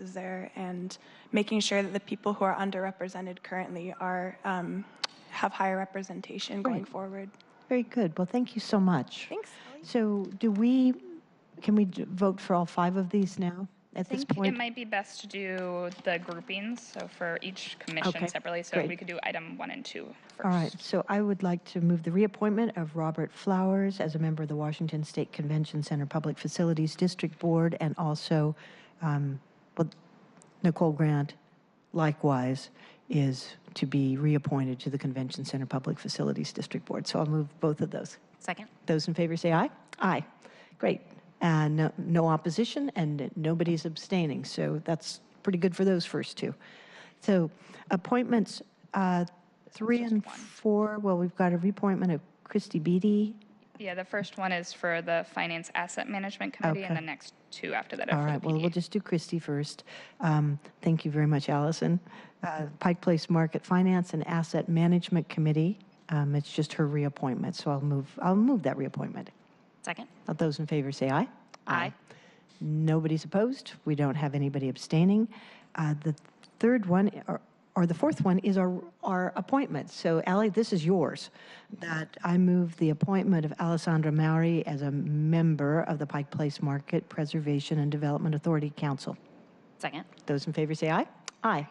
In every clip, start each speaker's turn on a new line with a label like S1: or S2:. S1: is there and making sure that the people who are underrepresented currently are, um, have higher representation going
S2: Right.
S1: forward.
S2: Very good. Well, thank you so much.
S1: Thanks.
S2: So do we, can we d- vote for all five of these now at this
S3: think it
S2: point?
S3: might be best to do the groupings, so for each
S2: Okay,
S3: commission separately, so
S2: great.
S3: we could do item one and two first.
S2: All right, so I would like to move the reappointment of Robert Flowers as a member of the Washington State Convention Center Public Facilities District Board and also, um, well, Nicole Grant likewise is to be reappointed to the Convention Center Public Facilities District Board. So I'll move both of those.
S4: Second.
S2: Those in favor say aye. Aye. Great. And no- no opposition and nobody's abstaining. So that's pretty good for those first two. So appointments, uh, three and four, well, we've got a reappointment of Christy Beatty.
S3: Yeah, the first one is for the Finance Asset Management Committee, and
S2: Okay.
S3: the next two after that
S2: All
S3: are for
S2: right,
S3: the
S2: well, we'll
S3: PDA.
S2: just do Christy first. Um, Thank you very much, Allison. Uh, Pike Place Market Finance and Asset Management Committee. Um, It's just her reappointment, so I'll move, I'll move that reappointment.
S4: Second.
S2: All Those in favor say aye.
S4: Aye.
S2: Nobody's opposed. We don't have anybody abstaining. Uh, The third one, or- or the fourth one, is our our appointments. So Ally, this is yours, that I move the appointment of Alessandra Maury as a member of the Pike Place Market Preservation and Development Authority Council.
S4: Second.
S2: Those in favor say aye. Aye.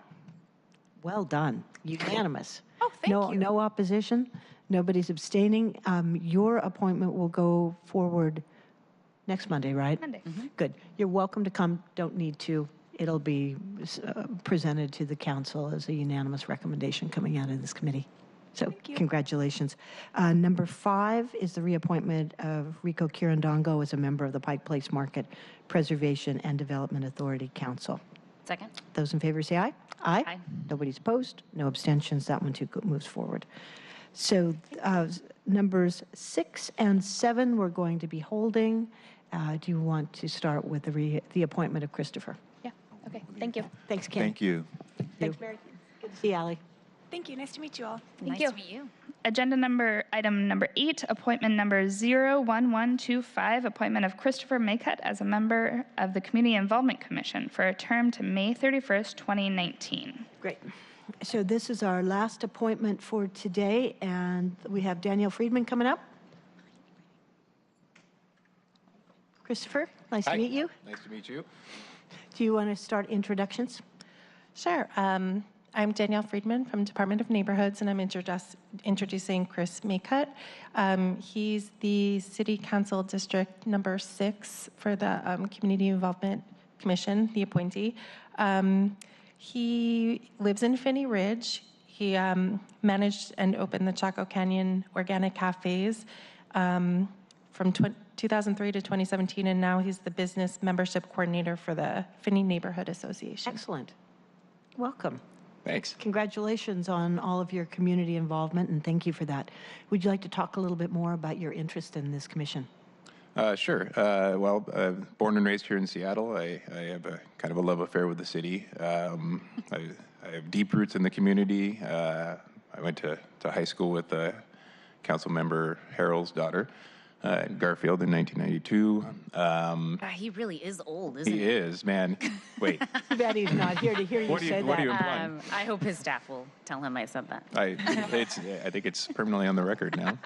S2: Well done. Unanimous.
S4: Oh, thank
S2: No-
S4: you.
S2: No opposition. Nobody's abstaining. Um, Your appointment will go forward next Monday, right? Mm-hmm.
S3: Monday.
S2: Good. You're welcome to come. Don't need to. It'll be uh, presented to the council as a unanimous recommendation coming out of this committee. So congratulations. Uh, Number five is the reappointment of Rico Kirandongo as a member of the Pike Place Market Preservation and Development Authority Council.
S4: Second.
S2: Those in favor say aye.
S4: Aye.
S2: Nobody's opposed, no abstentions, that one too go- moves forward. So uh, s- numbers six and seven, we're going to be holding. Uh, Do you want to start with the re- the appointment of Christopher?
S3: Yeah, okay, thank you.
S2: Thanks, Kim.
S5: Thank you.
S2: Thanks, Mary. Good to see you, Ally.
S1: Thank you, nice to meet you all.
S4: Nice
S3: you.
S4: to meet you.
S3: Agenda number, item number eight, appointment number 01125, appointment of Christopher Maycutt as a member of the Community Involvement Commission for a term to May 31st, 2019.
S2: Great. So this is our last appointment for today, and we have Daniel Friedman coming up. Christopher, nice to
S5: Hi.
S2: meet you.
S5: Nice to meet you.
S2: Do you want to start introductions?
S6: Sure. Um, I'm Danielle Friedman from Department of Neighborhoods, and I'm introduce- introducing Chris Maycutt. Um, He's the City Council District Number Six for the um, Community Involvement Commission, the appointee. Um, He lives in Finney Ridge. He um, managed and opened the Chaco Canyon Organic Cafes. Um, from tw- 2003 to 2017, and now he's the business membership coordinator for the Finney Neighborhood Association.
S2: Excellent. Welcome.
S5: Thanks.
S2: Congratulations on all of your community involvement, and thank you for that. Would you like to talk a little bit more about your interest in this commission?
S5: Uh, sure. Uh, well, uh, born and raised here in Seattle, I, I have a kind of a love affair with the city. Um, I, I have deep roots in the community. Uh, I went to, to high school with uh, council member Harold's daughter uh, in Garfield in 1992. Um,
S4: Ah, he really is old, isn't
S5: he
S4: he?
S5: is, man. Wait,
S2: Too bad he's not here to hear you
S5: what do
S2: say
S5: you, what do you
S2: that. Uh,
S5: imply?
S4: Um, I hope his staff will tell him I said that.
S5: I, it's, I think it's permanently on the record now.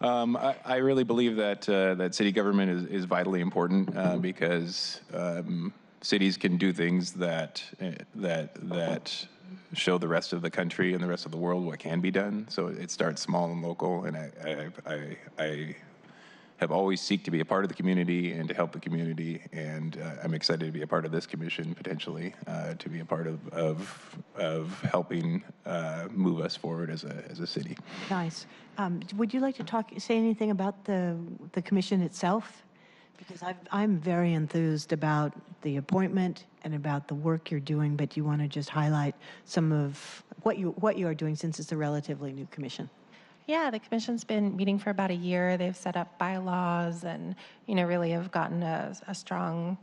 S5: Um, I, I really believe that uh, that city government is, is vitally important uh, because um, cities can do things that eh, that that show the rest of the country and the rest of the world what can be done. So it starts small and local, and I I, I, I have always seek to be a part of the community and to help the community. And uh, I'm excited to be a part of this commission potentially, uh, to be a part of of, of helping uh, move us forward as a as a city.
S2: Nice. Um, Would you like to talk, say anything about the, the commission itself? Because I've- I'm very enthused about the appointment and about the work you're doing, but do you want to just highlight some of what you, what you are doing since it's a relatively new commission?
S6: Yeah, the commission's been meeting for about a year. They've set up bylaws and, you know, really have gotten a, a strong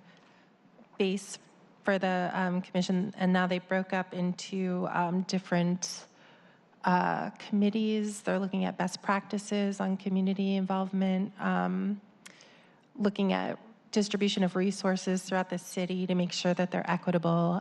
S6: base for the um, commission. And now they broke up into um, different uh, committees. They're looking at best practices on community involvement, um, looking at distribution of resources throughout the city to make sure that they're equitable